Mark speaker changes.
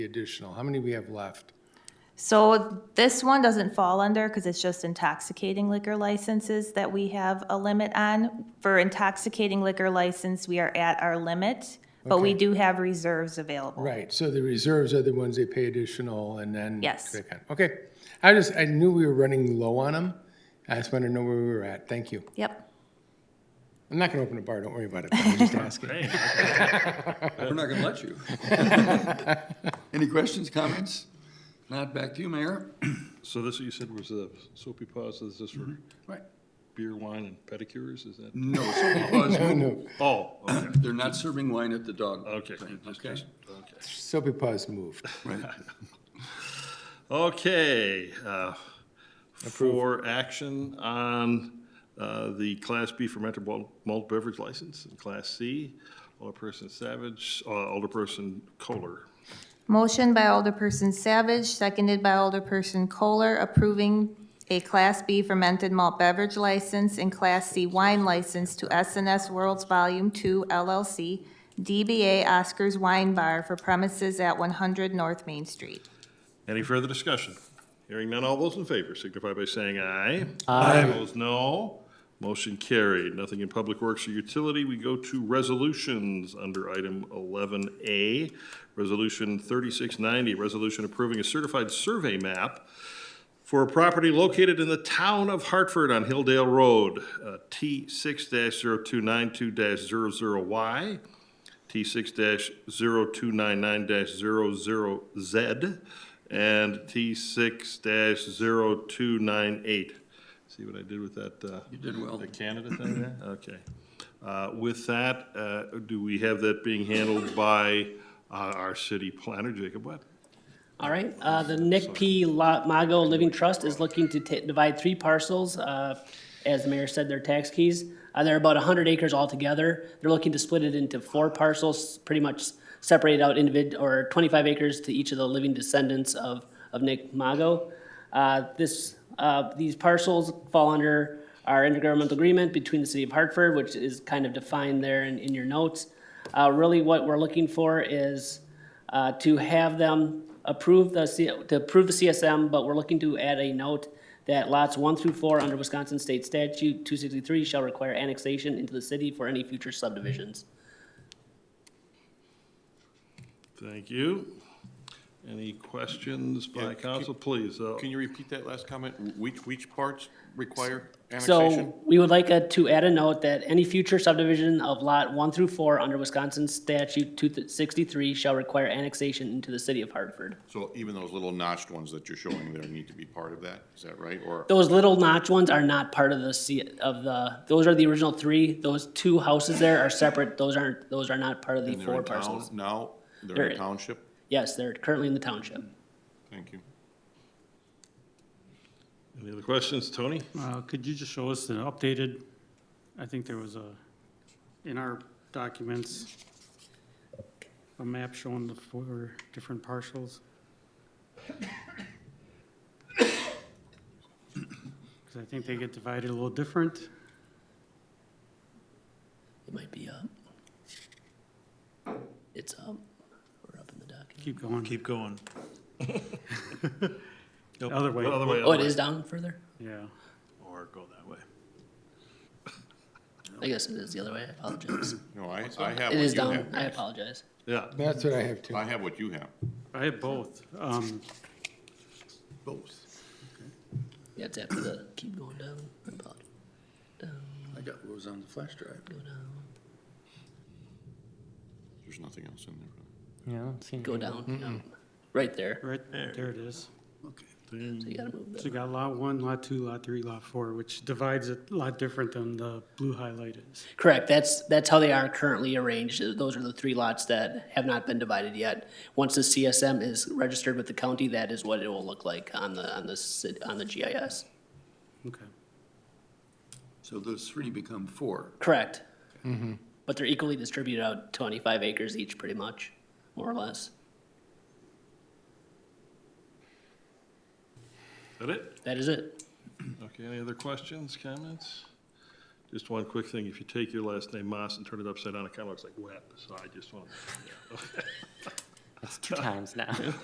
Speaker 1: Additional, how many we have left?
Speaker 2: So this one doesn't fall under, because it's just intoxicating liquor licenses that we have a limit on. For intoxicating liquor license, we are at our limit, but we
Speaker 1: Okay.
Speaker 2: do have reserves available.
Speaker 1: Right, so the reserves are the ones they pay additional and then.
Speaker 2: Yes.
Speaker 1: they can- Okay, I just, I knew we were running low on them. I just wanted to know where we were at. Thank you.
Speaker 2: Yep.
Speaker 1: I'm not going to open a bar, don't worry about it. I'm just asking.
Speaker 3: We're not gonna let you. Any questions, comments? Not back to you, Mayor.
Speaker 4: So this, you said was the soapy pause, is this for
Speaker 3: Right.
Speaker 4: beer, wine, and pedicures, is that?
Speaker 3: No, so because
Speaker 1: No,
Speaker 4: Oh, okay,
Speaker 3: they're not serving wine at the dog.
Speaker 4: okay.
Speaker 3: thing,
Speaker 4: just-
Speaker 3: Okay.
Speaker 4: just- okay.
Speaker 1: Soapy Paws moved.
Speaker 4: Okay, uh, for action on uh, the Class B fermented malt- malt beverage license and Class C, Alderperson Savage, uh, Alderperson Kohler.
Speaker 2: Motion by Alderperson Savage, seconded by Alderperson Kohler, approving a Class B fermented malt beverage license and Class C wine license to S and S Worlds Volume Two LLC, DBA Oscar's Wine Bar for premises at one hundred North Main Street.
Speaker 4: Any further discussion? Hearing none, all those in favor signify by saying aye. Aye. Opposed, no. Motion carried. Nothing in Public Works or Utility. We go to resolutions under item 11A. Resolution 3690, resolution approving a certified survey map for a property located in the town of Hartford on Hilldale Road, uh, T six 292 Y, T six 299 0 Z, and T six 298 See what I did with that, uh? You
Speaker 3: did well. Mm-hmm.
Speaker 4: The Canada thing there? Okay. Uh, with that, uh, do we have that being handled by, uh, our city planner, Jacob Webb?
Speaker 5: All right, uh, the Nick P. La- Mago Living Trust is looking to ta- divide three parcels. uh, As the mayor said, they're tax keys. Uh, They're about 100 acres altogether. They're looking to split it into four parcels, pretty much separate out individ, or 25 acres to each of the living descendants of, of Nick Mago. Uh, This, uh, these parcels fall under our intergovernmental agreement between the city of Hartford, which is kind of defined there in, in your notes. Uh, Really, what we're looking for is uh, to have them approve the, C- to approve the CSM, but we're looking to add a note that lots one through four under Wisconsin State Statute 263 shall require annexation into the city for any future subdivisions.
Speaker 4: Thank you. Any questions by council, please? uh,
Speaker 6: Can you repeat that last comment? Which, which parts require annexation?
Speaker 5: So we would like uh, to add a note that any future subdivision of lot one through four under Wisconsin Statute 263 shall require annexation into the city of Hartford.
Speaker 6: So even those little notched ones that you're showing there need to be part of that, is that right? Or,
Speaker 5: Those little notch ones are not part of the, C- of the, those are the original three. Those two houses there are separate. Those aren't, those are not part of the
Speaker 6: and they're
Speaker 5: four
Speaker 6: in town
Speaker 5: parcels.
Speaker 6: now, they're in
Speaker 5: They're-
Speaker 6: a township?
Speaker 5: Yes, they're currently in the township.
Speaker 6: Thank you.
Speaker 4: Any other questions, Tony?
Speaker 7: Uh, Could you just show us the updated, I think there was a, in our documents, a map showing the four different parcels? Because I think they get divided a little different.
Speaker 5: It might be up. It's up. We're up in the document.
Speaker 7: Keep going.
Speaker 8: Keep going.
Speaker 7: Other way,
Speaker 4: Other way,
Speaker 5: Oh,
Speaker 4: other
Speaker 5: it
Speaker 4: way.
Speaker 5: is down further?
Speaker 7: yeah.
Speaker 8: Or go that way.
Speaker 5: I guess it is the other way. I apologize.
Speaker 6: No, I, I have
Speaker 5: It is
Speaker 6: what you
Speaker 5: down.
Speaker 6: have.
Speaker 5: I apologize.
Speaker 4: Yeah,
Speaker 1: That's what I have too.
Speaker 6: I have what you have.
Speaker 7: I have both. Um,
Speaker 3: Both.
Speaker 5: Yeah, it's after the, keep going down. I apologize.
Speaker 3: I got what was on the flash drive.
Speaker 5: Go down,
Speaker 6: There's nothing else in there.
Speaker 5: go down. yeah. Right there.
Speaker 7: Right, there it is.
Speaker 5: So you gotta move
Speaker 7: So
Speaker 5: that.
Speaker 7: you got lot one, lot two, lot three, lot four, which divides it a lot different than the blue highlight is.
Speaker 5: Correct. That's, that's how they are currently arranged. Those are the three lots that have not been divided yet. Once the CSM is registered with the county, that is what it will look like on the, on the, cit- on the GIS.
Speaker 7: Okay.
Speaker 3: So those three become four.
Speaker 5: Correct. But they're equally distributed out twenty-five acres each, pretty much, more or less.
Speaker 4: is that it?
Speaker 5: That is it.
Speaker 4: Okay, any other questions, comments? Just one quick thing, if you take your last name Moss and turn it upside down, it kind of looks like wet, so I just want,
Speaker 8: That's two times now.